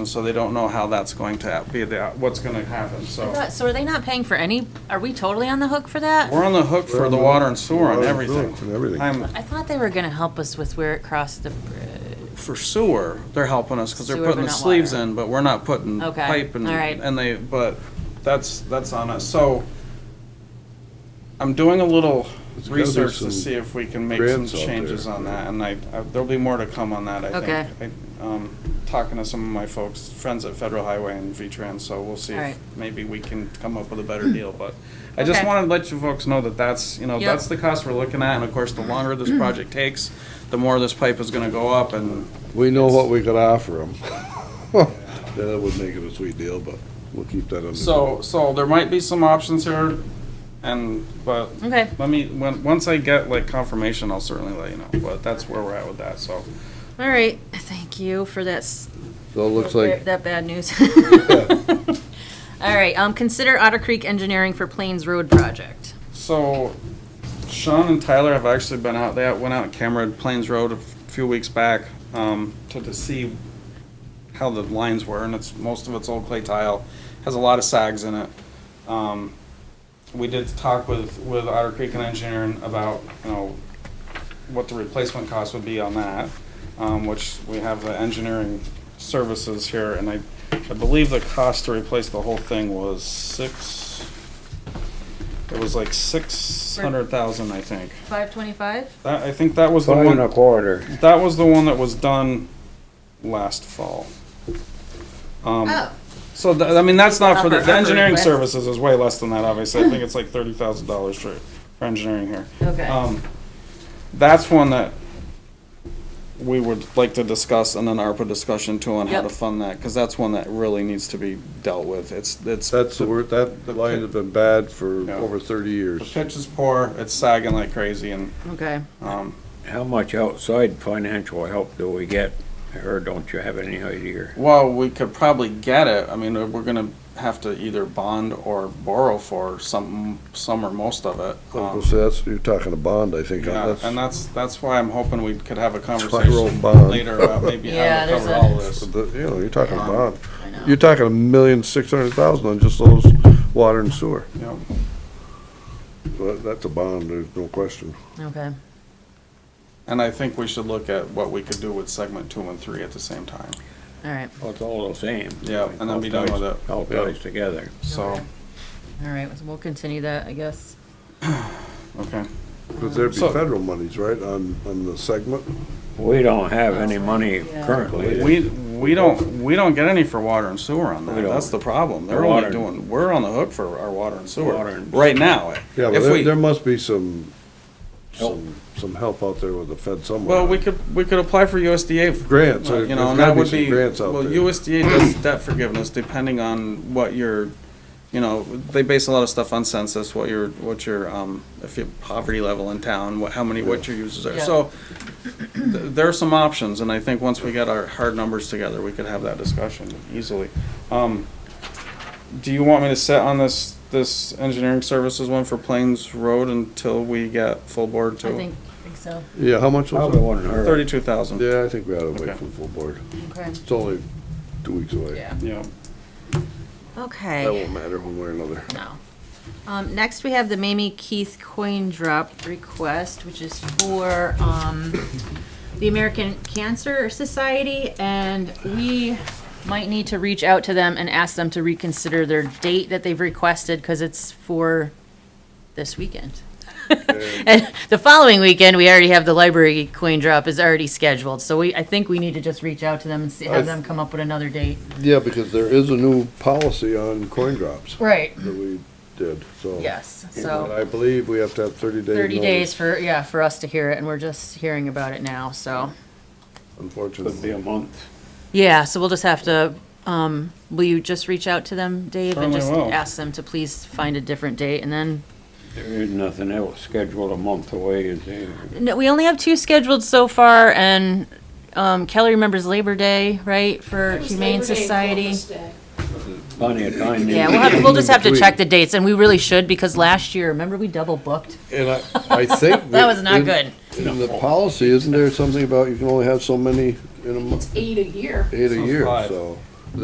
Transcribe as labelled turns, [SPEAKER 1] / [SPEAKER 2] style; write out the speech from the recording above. [SPEAKER 1] And so they don't know how that's going to be, the what's gonna happen, so.
[SPEAKER 2] So are they not paying for any, are we totally on the hook for that?
[SPEAKER 1] We're on the hook for the water and sewer and
[SPEAKER 3] Water and sewer
[SPEAKER 1] everything.
[SPEAKER 3] and everything.
[SPEAKER 1] I'm,
[SPEAKER 2] I thought they were gonna help us with where it crossed the bridge.
[SPEAKER 1] for sewer, they're helping us, because they're
[SPEAKER 2] Sewer,
[SPEAKER 1] putting
[SPEAKER 2] but
[SPEAKER 1] the
[SPEAKER 2] not
[SPEAKER 1] sleeves
[SPEAKER 2] water.
[SPEAKER 1] in, but we're not putting
[SPEAKER 2] Okay,
[SPEAKER 1] pipe and,
[SPEAKER 2] all right.
[SPEAKER 1] and they, but that's, that's on us, so. I'm doing a little
[SPEAKER 3] There's gotta be
[SPEAKER 1] research to
[SPEAKER 3] some
[SPEAKER 1] see if we can make some
[SPEAKER 3] grants out
[SPEAKER 1] changes on
[SPEAKER 3] there.
[SPEAKER 1] that, and I, I- there'll be more to come on that, I
[SPEAKER 2] Okay.
[SPEAKER 1] think. I- Um, talking to some of my folks, friends at Federal Highway and V-Trans, so we'll see
[SPEAKER 2] All right.
[SPEAKER 1] if maybe we can come up with a better deal, but I just
[SPEAKER 2] Okay.
[SPEAKER 1] wanted to let you folks know that that's, you know,
[SPEAKER 2] Yep.
[SPEAKER 1] that's the cost we're looking at, and of course, the longer this project takes, the more this pipe is gonna go up, and
[SPEAKER 3] We know what we could offer them. That would make it a sweet deal, but we'll keep that under.
[SPEAKER 1] So, so there might be some options here, and, but,
[SPEAKER 2] Okay.
[SPEAKER 1] let me, when, once I get like confirmation, I'll certainly let you know, but that's where we're at with that, so.
[SPEAKER 2] All right, thank you for that, s-
[SPEAKER 3] So it looks like,
[SPEAKER 2] that bad news. All right, um, consider Otter Creek Engineering for Plains Road Project.
[SPEAKER 1] So Sean and Tyler have actually been out, they went out and cameraed Plains Road a few weeks back, um, to, to see how the lines were, and it's, most of it's old clay tile, has a lot of sags in it. Um, we did talk with, with Otter Creek and Engineering about, you know, what the replacement cost would be on that, um, which we have the engineering services here, and I, I believe the cost to replace the whole thing was six, it was like six hundred thousand, I think.
[SPEAKER 2] Five twenty-five?
[SPEAKER 1] That, I think that was the
[SPEAKER 4] Five and a
[SPEAKER 1] one,
[SPEAKER 4] quarter.
[SPEAKER 1] that was the one that was done last fall. Um,
[SPEAKER 2] Oh,
[SPEAKER 1] so, th- I mean, that's not for, the
[SPEAKER 2] Upper- upper
[SPEAKER 1] the engineering
[SPEAKER 2] request.
[SPEAKER 1] services is way less than that, obviously, I think it's like thirty thousand dollars for, for engineering here.
[SPEAKER 2] okay.
[SPEAKER 1] Um, that's one that we would like to discuss and an ARPA discussion too on how to
[SPEAKER 2] Yep.
[SPEAKER 1] fund that, because that's one that really needs to be dealt with. It's, it's.
[SPEAKER 3] that's the word, that
[SPEAKER 1] The
[SPEAKER 3] line
[SPEAKER 1] pit-
[SPEAKER 3] has been bad for
[SPEAKER 1] Yeah.
[SPEAKER 3] over thirty
[SPEAKER 1] The
[SPEAKER 3] years.
[SPEAKER 1] pitch is poor, it's sagging like crazy and,
[SPEAKER 2] Okay.
[SPEAKER 1] um,
[SPEAKER 4] How much outside financial help do we get, or don't you have any idea?
[SPEAKER 1] while we could probably get it, I mean, uh, we're gonna have to either bond or borrow for some, some or most of it.
[SPEAKER 3] So
[SPEAKER 1] Um,
[SPEAKER 3] that's, you're talking a bond, I think,
[SPEAKER 1] Yeah,
[SPEAKER 3] on
[SPEAKER 1] and
[SPEAKER 3] this.
[SPEAKER 1] that's, that's why I'm hoping we could have a
[SPEAKER 3] why I wrote
[SPEAKER 1] conversation
[SPEAKER 3] bond.
[SPEAKER 1] later about maybe
[SPEAKER 2] Yeah,
[SPEAKER 1] how to
[SPEAKER 2] there's
[SPEAKER 1] cover
[SPEAKER 2] a-
[SPEAKER 1] all this.
[SPEAKER 3] The- You know, you're talking a
[SPEAKER 1] Yeah.
[SPEAKER 3] bond.
[SPEAKER 2] I know.
[SPEAKER 3] You're talking a million, six hundred thousand on just those water and sewer.
[SPEAKER 1] you know.
[SPEAKER 3] So that- That's a bond, there's no question.
[SPEAKER 2] Okay,
[SPEAKER 1] And I think we should look at what we could do with segment two and three at the same time.
[SPEAKER 2] all right,
[SPEAKER 4] Well, it's all the same.
[SPEAKER 1] Yeah, and then be done with it.
[SPEAKER 4] All ties together.
[SPEAKER 1] So,
[SPEAKER 2] all right, we'll continue that, I guess.
[SPEAKER 1] okay.
[SPEAKER 3] Because there'd be
[SPEAKER 1] So-
[SPEAKER 3] federal monies, right, on, on the segment?
[SPEAKER 4] We don't have any money
[SPEAKER 2] Yeah.
[SPEAKER 4] currently.
[SPEAKER 1] We, we don't, we don't get any for water and sewer on that.
[SPEAKER 4] We don't.
[SPEAKER 1] That's the problem. They're
[SPEAKER 4] The
[SPEAKER 1] only
[SPEAKER 4] water-
[SPEAKER 1] doing, we're on the hook for our water and sewer
[SPEAKER 4] Water and-
[SPEAKER 1] right now.
[SPEAKER 3] Yeah, but
[SPEAKER 1] If
[SPEAKER 3] there,
[SPEAKER 1] we-
[SPEAKER 3] there must be some,
[SPEAKER 4] Help.
[SPEAKER 3] some, some help out there with the Fed somewhere.
[SPEAKER 1] Well, we could, we could apply for USDA. for-
[SPEAKER 3] Grants,
[SPEAKER 1] uh,
[SPEAKER 3] there-
[SPEAKER 1] You know,
[SPEAKER 3] there's
[SPEAKER 1] and
[SPEAKER 3] gotta
[SPEAKER 1] that
[SPEAKER 3] be
[SPEAKER 1] would
[SPEAKER 3] some
[SPEAKER 1] be,
[SPEAKER 3] grants out
[SPEAKER 1] well,
[SPEAKER 3] there.
[SPEAKER 1] USDA does debt forgiveness depending on what your, you know, they base a lot of stuff on census, what your, what your, um, if your poverty level in town, what, how many, what your users are.
[SPEAKER 2] Yeah.
[SPEAKER 1] So th- there are some options, and I think once we get our hard numbers together, we could have that discussion easily. Um, do you want me to sit on this, this engineering services one for Plains Road until we get full board
[SPEAKER 2] I
[SPEAKER 1] to
[SPEAKER 2] think, think so,
[SPEAKER 3] Yeah, how much was
[SPEAKER 4] Probably
[SPEAKER 3] it?
[SPEAKER 4] wouldn't hurt.
[SPEAKER 1] thirty-two thousand?
[SPEAKER 3] Yeah, I think we ought to
[SPEAKER 1] Okay.
[SPEAKER 3] wait for the full board.
[SPEAKER 2] okay,
[SPEAKER 3] It's only two weeks away.
[SPEAKER 2] yeah,
[SPEAKER 1] Yeah.
[SPEAKER 2] okay.
[SPEAKER 3] That won't matter one way or another.
[SPEAKER 2] No. Um, next, we have the Mamie Keith coin drop request, which is for, um, the American Cancer Society, and we might need to reach out to them and ask them to reconsider their date that they've requested, because it's for this weekend. And the following weekend, we already have the library coin drop is already scheduled, so we, I think we need to just reach out to them and see, have them come up with another date.
[SPEAKER 3] Yeah, because there is a new policy on coin drops
[SPEAKER 2] Right.
[SPEAKER 3] that we did, so.
[SPEAKER 2] Yes, so.
[SPEAKER 3] And I believe we have to have thirty days.
[SPEAKER 2] 30 days
[SPEAKER 3] notice,
[SPEAKER 2] for, yeah, for us to hear it, and we're just hearing about it now, so.
[SPEAKER 4] Could be
[SPEAKER 3] Unfortunately.
[SPEAKER 4] a month.
[SPEAKER 2] Yeah, so we'll just have to, um, will you just reach out to them, Dave?
[SPEAKER 1] Certainly
[SPEAKER 2] And
[SPEAKER 1] will.
[SPEAKER 2] just ask them to please find a different date, and then,
[SPEAKER 4] There is nothing else scheduled a month away, is there?
[SPEAKER 2] no, we only have two scheduled so far, and, um, Kelly remembers Labor Day, right, for Humane Society?
[SPEAKER 4] Plenty of time.
[SPEAKER 2] Yeah, we'll have, we'll just have to
[SPEAKER 3] Between.
[SPEAKER 2] check the dates, and we really should, because last year, remember, we double booked?
[SPEAKER 3] And I, I think.
[SPEAKER 2] That was not
[SPEAKER 3] in-
[SPEAKER 2] good.
[SPEAKER 3] In the policy, isn't there something about you can only have so many in a month,
[SPEAKER 5] Eight a year.
[SPEAKER 3] eight a
[SPEAKER 1] So
[SPEAKER 3] year,
[SPEAKER 1] five.
[SPEAKER 3] so.